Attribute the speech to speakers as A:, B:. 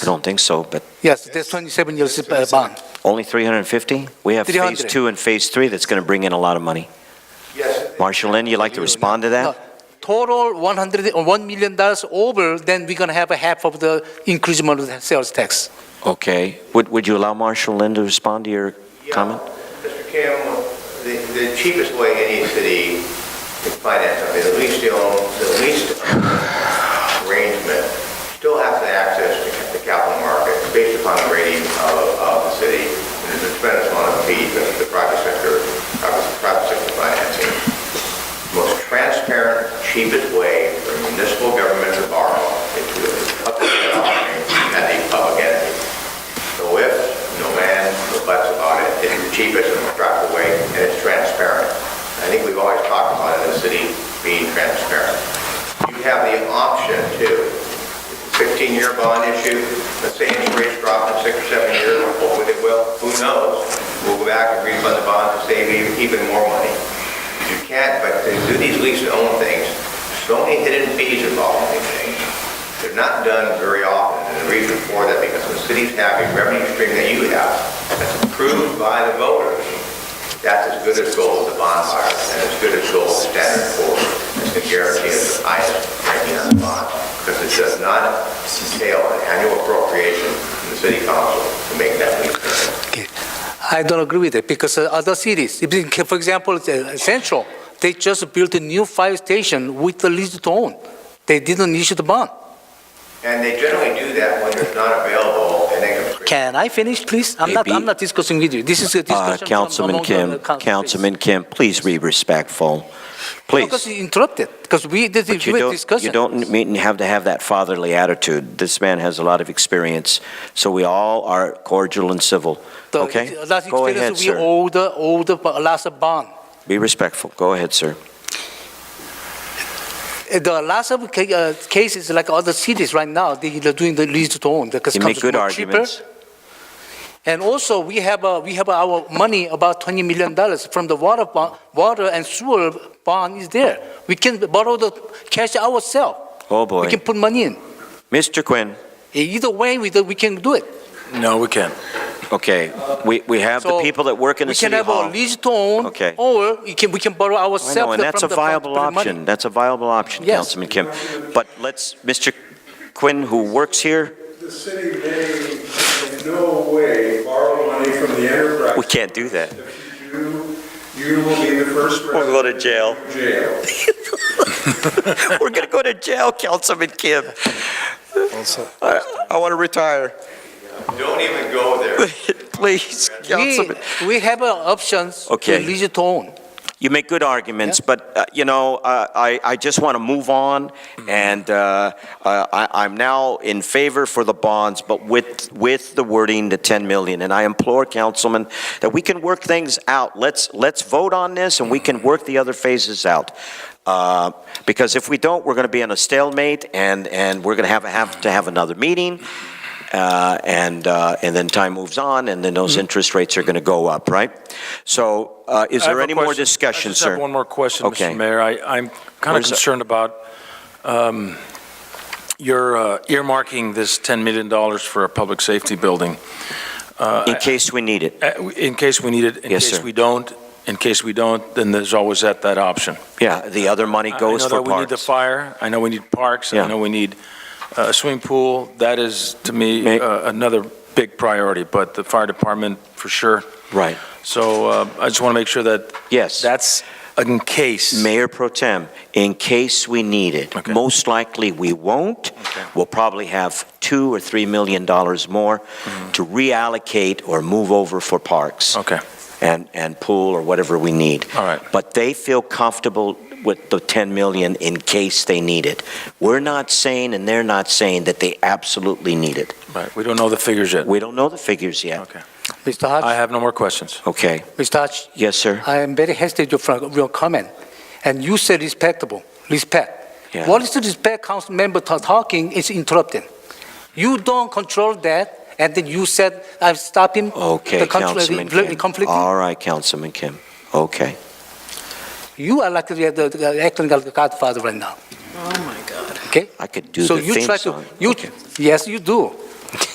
A: I don't think so, but
B: Yes, there's 27 years uh, bond.
A: only 350? We have Phase
B: 300.
A: 2 and Phase 3 that's going to bring in a lot of money.
C: Yes.
A: Marshall Lynn, you like to respond to
B: No,
A: that?
B: Total 100, or $1 million dollars over, then we're going to have a half of the increasement of the sales tax.
A: Okay. Would, would you allow Marshall Lynn to respond to your uh, comment?
C: Mr. Kim, the, the cheapest way any city can finance something, the least, the own- the least arrangement, still has to access the ca- the capital market based upon the rating of, of the city. And There's a tremendous amount of fees that the private sector, private private sector financing. Most transparent, cheapest way for municipal government to borrow into a public offering at the public entity. No ifs, no ands, no buts about it. It's the cheapest and most practical way, and it's transparent. I think we've always talked about it, the city being transparent. You have the option to, 15-year bond issue, let's say interest rates drop in six or seven years, hopefully they will, who knows? We'll go back and refund the bond and save e- even more money. You can't, but to do these lease-to-own things, so many hidden fees involved in these things. They're not done very often, and the reason for that, because the cities have a revenue stream that you have, that's approved by the voters. That's as good as gold, the bond market, and as good as gold standard for, it's the guarantee of the highest rating on the bond, because it does not entail an annual appropriation from the city council to make that leap.
B: Okay. I don't agree with it, because uh, other cities, if you can- for example, uh, Central, they just built a new fire station with the lease to own. They didn't issue the bond.
C: And they generally do that when it's not available, and they can.
B: Can I finish, please? I'm not,
A: AB.
B: I'm not discussing with you. This is a
A: Uh,
B: discussion. from
A: Councilman
B: among the
A: Kim,
B: council, please.
A: Councilman Kim, please be respectful.
B: Because
A: Please.
B: you interrupted, because we, this
A: But
B: is
A: you
B: a
A: don't,
B: discussion.
A: you don't meet and have to have that fatherly attitude. This man has a lot of experience, so we all are cordial and civil.
B: The
A: Okay?
B: Last
A: Go ahead,
B: uh, experience, we
A: sir.
B: owe the, owe the bo- last bond.
A: Be respectful. Go ahead, sir.
B: Uh, The lots of ca- uh, cases, like other cities right now, they- they're doing the lease to own because
A: You
B: it
A: make
B: comes
A: good
B: more cheaper.
A: arguments.
B: And also, we have, uh, we have our money, about $20 million from the water bond, water and sewer bond is there. We can borrow the cash ourselves.
A: Oh,
B: We
A: boy.
B: can put money in. E,
A: Mr. Quinn,
B: Either way, we, we can do it.
D: No, we can't.
A: okay, we, we have the
B: So,
A: people that work in the city
B: We can
A: hall.
B: have a lease to own.
A: Okay.
B: Or we can, we can borrow
A: I
B: ourselves
A: know,
B: from
A: and
B: the
A: that's a
B: from the
A: viable
B: money.
A: option. That's a viable option,
B: Yes.
A: Councilman Kim. But let's, Mr. Quinn, who works here,
E: The city may in no way borrow money from the enterprise.
A: we can't do that.
E: If you do, you will be the first
A: We'll
E: person
A: go to jail.
E: in jail.
A: We're going to go to jail, Councilman Kim. I, I want to retire.
C: Don't even go there.
A: Please, Councilman.
B: We, we have uh, options to
A: Okay.
B: lease to own.
A: You make good arguments, but, uh, you know, uh, I, I just want to move on, and uh, uh, I, I'm now in favor for the bonds, but with, with the wording, the 10 million, and I implore, Councilman, that we can work things out. Let's, let's vote on this, and we can work the other phases out. Uh, Because if we don't, we're going to be in a stalemate, and, and we're going to have, have to have another meeting, uh, and, uh, and then time moves on, and then those interest rates are going to go up, right? So uh, is
D: I have
A: there
D: a
A: any more
D: question.
A: discussion,
D: I just have
A: sir?
D: one more question,
A: Okay.
D: Mr. Mayor. I, I'm kind of
A: Where's the-
D: concerned about um, your uh, earmarking this $10 million for a public safety building. Uh,
A: In case we need it,
D: uh, In case we need it, in
A: Yes,
D: case
A: sir.
D: we don't, in case we don't, then there's always that, that option.
A: yeah, the other money goes
D: I
A: for
D: know that we need the
A: parks.
D: fire, I know we need parks,
A: Yeah.
D: I know we need uh, a swimming pool. That is, to me,
A: May-
D: uh, another big priority, but the fire department, for sure.
A: Right,
D: So uh, I just want to make sure that
A: yes.
D: That's in case.
A: Mayor Pro Tem, in case we need it.
D: Okay.
A: Most likely, we won't. We'll probably have two or three million dollars more
D: Mm-hmm.
A: to reallocate or move over for parks.
D: Okay.
A: and, and pool or whatever we need.
D: All right.
A: But they feel comfortable with the 10 million in case they need it. We're not saying, and they're not saying, that they absolutely need it.
D: Right. We don't know the figures yet.
A: We don't know the figures yet.
D: Okay.
B: Mr. Hodge,
D: I have no more questions.
A: Okay,
B: Mr. Hodge,
A: yes, sir?
B: I am very hesitant from your comment. And you said respectable, respect.
A: Yeah.
B: What is the respect council member ta- talking is interrupting. You don't control that, and then you said, I'm stopping
A: Okay,
B: the control-
A: Councilman
B: the
A: Kim.
B: conflict. Uh,
A: All right, Councilman Kim, okay.
B: You are like the, the- the acting like the godfather right now. Oh, my God. Okay?
A: I could do
B: So
A: the
B: you
A: theme
B: try to,
A: song.
B: you,
A: Okay.
B: yes, you do.